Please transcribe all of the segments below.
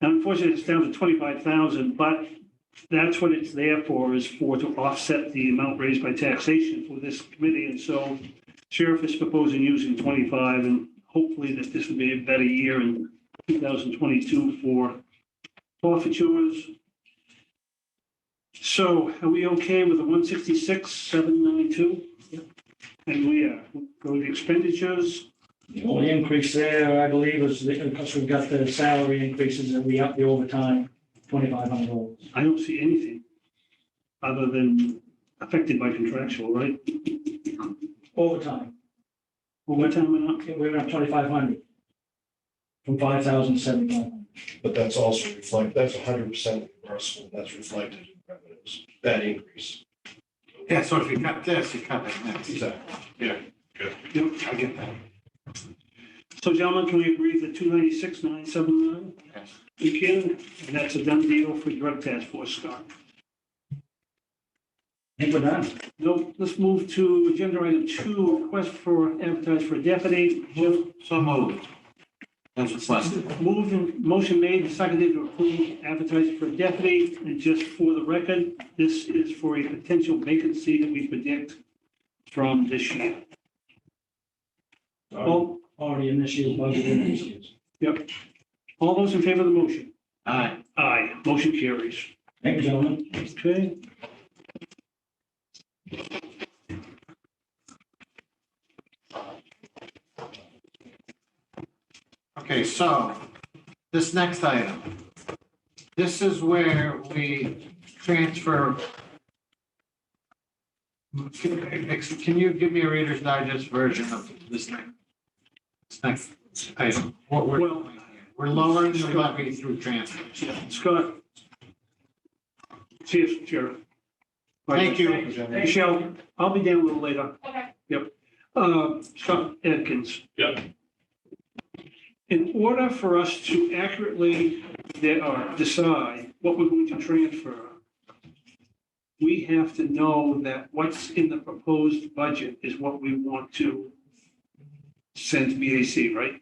Now, Unfortunately, it's down to twenty-five thousand, but that's what it's there for, is for to offset the amount raised by taxation for this committee. And so sheriff is proposing using twenty-five and hopefully that this will be a better year in two thousand twenty-two for forfeitures. So are we okay with the one sixty-six, seven ninety-two? And we are, going to expenditures, The only increase there, I believe, is the, because we've got the salary increases and we up the overtime, twenty-five hundred dollars. I don't see anything other than affected by contractual, right? Overtime, Well, what time went up? okay, we went up twenty-five hundred. From five thousand seventy-five. But that's also reflect, that's hundred percent reimbursable, that's reflected in revenues, that increase. Yeah, so if you cut this, you cut that next. Exactly. Yep. I get that. So gentlemen, can we agree that two ninety-six, nine seven nine? Yes. We can, and that's a done deal for drug task force, Scott. I think we're done. No, let's move to agenda item two, request for advertise for deputy. Jeff, So moved. That's what's left. Moved and motion made, and seconded to approve advertising for deputy. And just for the record, this is for a potential vacancy that we predict from this year. All, Oh, Already in this year's budget, in this year's. all those in favor of the motion? Aye. Aye, motion carries. Thank you, gentlemen. Okay. Okay, so this next item. This is where we transfer. Can you give me a Reader's Digest version of this next? This next item, what we're, Well- doing here? we're lowering the levy through transfers. Scott. See you, Sheriff. Thank you. Michelle, I'll be down a little later. Okay. Yep. Uh, Scott Atkins. Yep. In order for us to accurately de- uh, decide what we're going to transfer, we have to know that what's in the proposed budget is what we want to send to BAC, right?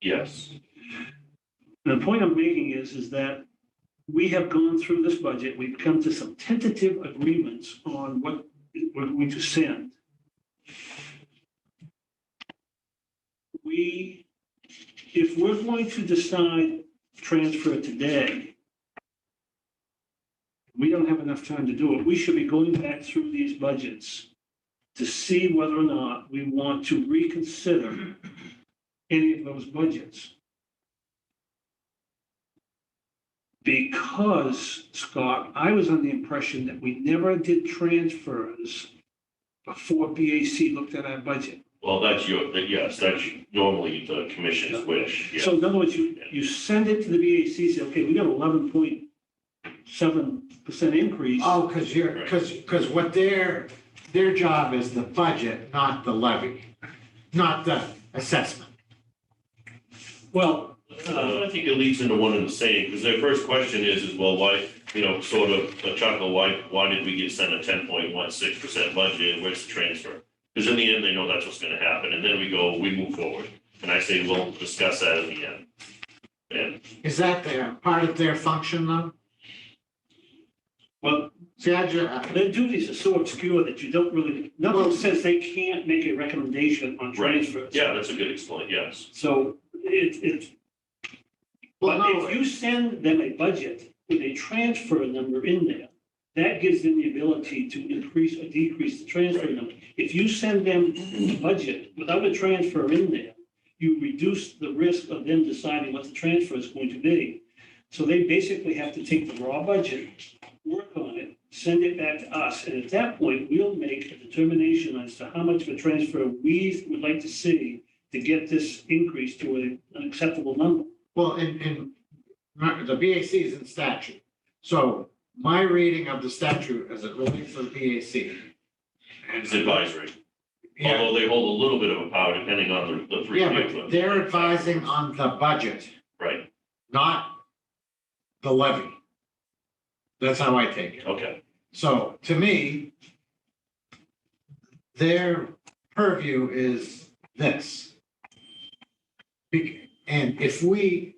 Yes. The point I'm making is, is that we have gone through this budget, we've come to some tentative agreements on what we're going to send. We, if we're going to decide transfer today, we don't have enough time to do it. We should be going back through these budgets to see whether or not we want to reconsider any of those budgets. Because, Scott, I was under the impression that we never did transfers before BAC looked at our budget. Well, that's your, that- yes, that's normally the commission's wish, yeah. So in other words, you, you send it to the BAC, say, okay, we got eleven point seven percent increase. Oh, because you're, because, because what their, their job is the budget, not the levy, not the assessment. Well, Uh, I think it leads into one and the same, because their first question is, is well, why, you know, sort of a chuckle, why, why did we get sent a ten point one six percent budget, where's the transfer? Because in the end, they know that's what's gonna happen, and then we go, we move forward, and I say, we'll discuss that in the end. And, Is that their, part of their function though? well, See, I just, their duties are so obscure that you don't really, nothing says they can't make a recommendation on Right. transfers. yeah, that's a good explain, yes, So it, it, well, But no, if you send them a budget with a transfer number in there, that gives them the ability to increase or decrease the transfer Right. number. If you send them a budget without a transfer in there, you reduce the risk of them deciding what the transfer is going to be. So they basically have to take the raw budget, work on it, send it back to us. And at that point, we'll make a determination as to how much of a transfer we would like to see to get this increase to a- an acceptable number. well, in, in, the BAC is in statute. So my reading of the statute as it relates to the BAC. it's advisory, Yeah, although they hold a little bit of a power depending on the, the three. yeah, people. but they're advising on the budget, Right, not the levy. That's how I take it. okay. So to me, their purview is this. Be- And if we